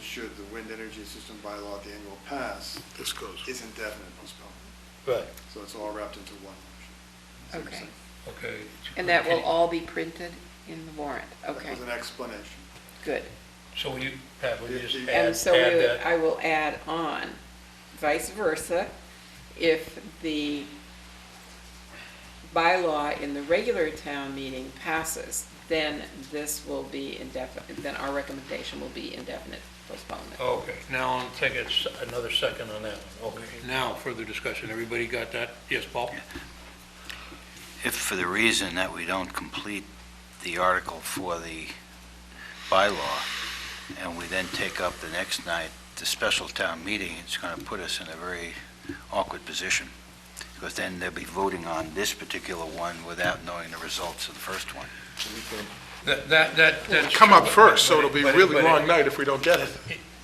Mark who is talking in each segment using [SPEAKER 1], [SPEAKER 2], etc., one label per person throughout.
[SPEAKER 1] should the wind energy system bylaw at the annual pass,
[SPEAKER 2] This goes.
[SPEAKER 1] is indefinite postponement.
[SPEAKER 3] Right,
[SPEAKER 1] So it's all wrapped into one motion. See what I'm
[SPEAKER 4] Okay.
[SPEAKER 1] saying?
[SPEAKER 3] okay.
[SPEAKER 4] And that will all be printed in the warrant, okay,
[SPEAKER 1] That was an explanation.
[SPEAKER 4] good.
[SPEAKER 3] So will you, Pat, will you just add,
[SPEAKER 4] And
[SPEAKER 3] add
[SPEAKER 4] so we would-
[SPEAKER 3] that?
[SPEAKER 4] I will add on vice versa, if the bylaw in the regular town meeting passes, then this will be indefinite, then our recommendation will be indefinite postponement.
[SPEAKER 3] Okay, now I'll take a s- another second on that one. Okay, now further discussion. Everybody got that? Yes, Paul?
[SPEAKER 5] If for the reason that we don't complete the article for the bylaw, and we then take up the next night, the special town meeting, it's going to put us in a very awkward position, because then they'll be voting on this particular one without knowing the results of the first one.
[SPEAKER 3] That, that, that. that's-
[SPEAKER 2] Come up first, so
[SPEAKER 3] but-
[SPEAKER 2] it'll be
[SPEAKER 3] but-
[SPEAKER 2] really
[SPEAKER 3] but-
[SPEAKER 2] long night if we don't get it.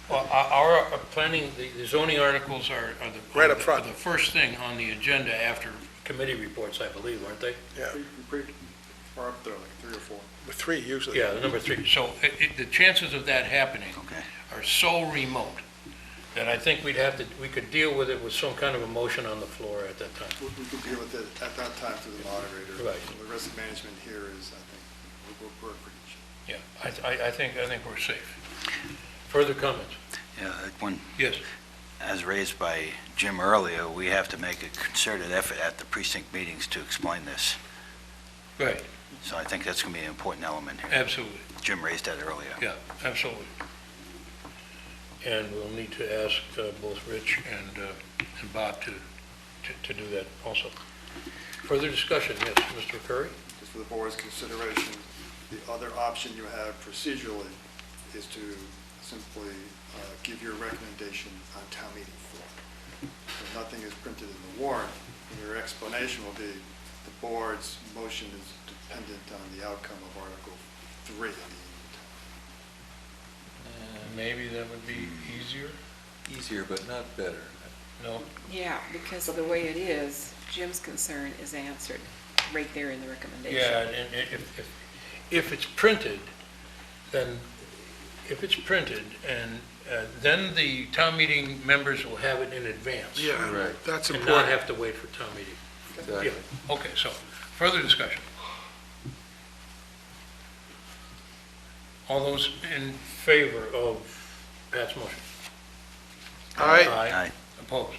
[SPEAKER 3] Well, Our, our planning, the the zoning articles are, are the.
[SPEAKER 2] Right up front.
[SPEAKER 3] are The first thing on the agenda after committee reports, I believe, aren't they?
[SPEAKER 2] Yeah,
[SPEAKER 1] Pretty- pretty far up there, like three or four.
[SPEAKER 2] with three usually.
[SPEAKER 3] Yeah, the number three. So it, it, the chances of that happening
[SPEAKER 5] Okay.
[SPEAKER 3] are so remote that I think we'd have to, we could deal with it with some kind of a motion on the floor at that time.
[SPEAKER 1] We we could deal with it at that time through the moderator.
[SPEAKER 3] Right.
[SPEAKER 1] The risk management here is, I think, we're, we're pretty sure.
[SPEAKER 3] Yeah, I, I, I think, I think we're safe. Further comments?
[SPEAKER 5] Yeah, When,
[SPEAKER 3] Yes.
[SPEAKER 5] as raised by Jim earlier, we have to make a concerted effort at the precinct meetings to explain this.
[SPEAKER 3] Right,
[SPEAKER 5] So I think that's going to be an important element here.
[SPEAKER 3] absolutely,
[SPEAKER 5] Jim raised that earlier.
[SPEAKER 3] yeah, absolutely. And we'll need to ask uh, both Rich and, uh, and Bob to, to- to do that also. Further discussion, yes, Mr. Curry?
[SPEAKER 1] just for the board's consideration, the other option you have procedurally is to simply uh, give your recommendation on town meeting floor. So nothing is printed in the warrant, and your explanation will be, the board's motion is dependent on the outcome of Article 3 of the
[SPEAKER 3] Uh, Maybe that would be easier?
[SPEAKER 6] Easier, but not better.
[SPEAKER 3] No?
[SPEAKER 4] Yeah, because of the way it is, Jim's concern is answered right there in the recommendation.
[SPEAKER 3] Yeah, and i- if, if, if it's printed, then, if it's printed, and uh, then the town meeting members will have it in advance.
[SPEAKER 2] Yeah,
[SPEAKER 6] Right.
[SPEAKER 2] that's
[SPEAKER 3] And not
[SPEAKER 2] important.
[SPEAKER 3] have to wait for town meeting.
[SPEAKER 6] Exactly.
[SPEAKER 3] Yeah, okay, so, further discussion. All those in favor of Pat's motion?
[SPEAKER 2] All right,
[SPEAKER 3] Aye.
[SPEAKER 5] Aye.
[SPEAKER 3] Opposed?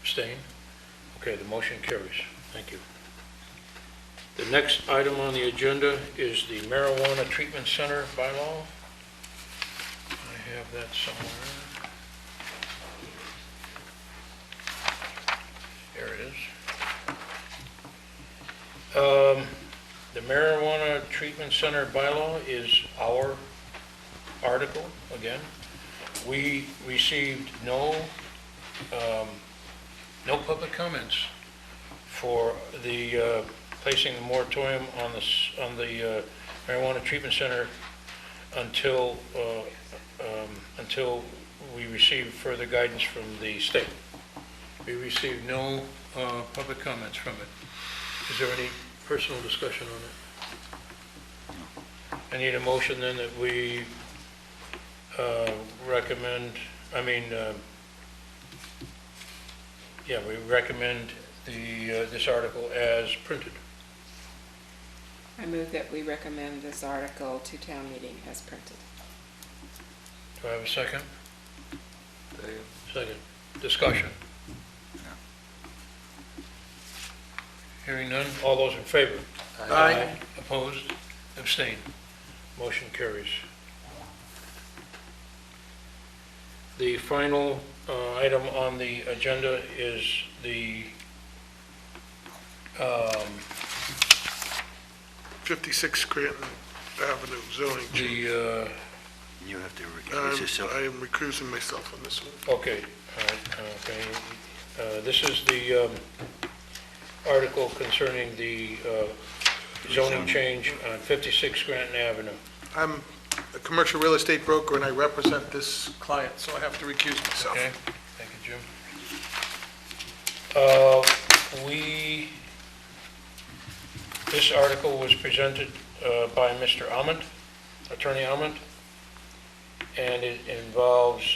[SPEAKER 3] Abstained? Okay, the motion carries. Thank you. The next item on the agenda is the marijuana treatment center bylaw. I have that somewhere. There it is. Um, The marijuana treatment center bylaw is our article, again. We received no um, no public comments for the, uh, placing the moratorium on the, s- on the uh, marijuana treatment center until, uh, um, until we receive further guidance from the state. We received no uh, public comments from it. Is there any personal discussion on it? I need a motion then that we uh, recommend, I mean, uh, yeah, we recommend the, uh, this article as printed.
[SPEAKER 4] I move that we recommend this article to town meeting as printed.
[SPEAKER 3] Do I have a second?
[SPEAKER 6] They-
[SPEAKER 3] Second. Discussion.
[SPEAKER 5] No.
[SPEAKER 3] Hearing none, all those in favor?
[SPEAKER 2] Aye.
[SPEAKER 3] Opposed? Abstained? Motion carries. The final uh, item on the agenda is the, um,
[SPEAKER 2] 56 Scranton Avenue zoning. change.
[SPEAKER 3] the, uh,
[SPEAKER 5] You have to recuse
[SPEAKER 2] Um,
[SPEAKER 5] yourself.
[SPEAKER 2] I am recusing myself on this one.
[SPEAKER 3] uh, okay, all right, okay. Uh, This is the um, article concerning the uh, zoning
[SPEAKER 5] Zoning.
[SPEAKER 3] change on 56 Granton Avenue.
[SPEAKER 2] I'm a commercial real estate broker and I represent this client, so I have to recuse myself.
[SPEAKER 3] Okay, thank you, Jim. Uh, We, this article was presented uh, by Mr. Ament, Attorney Ament, and it involves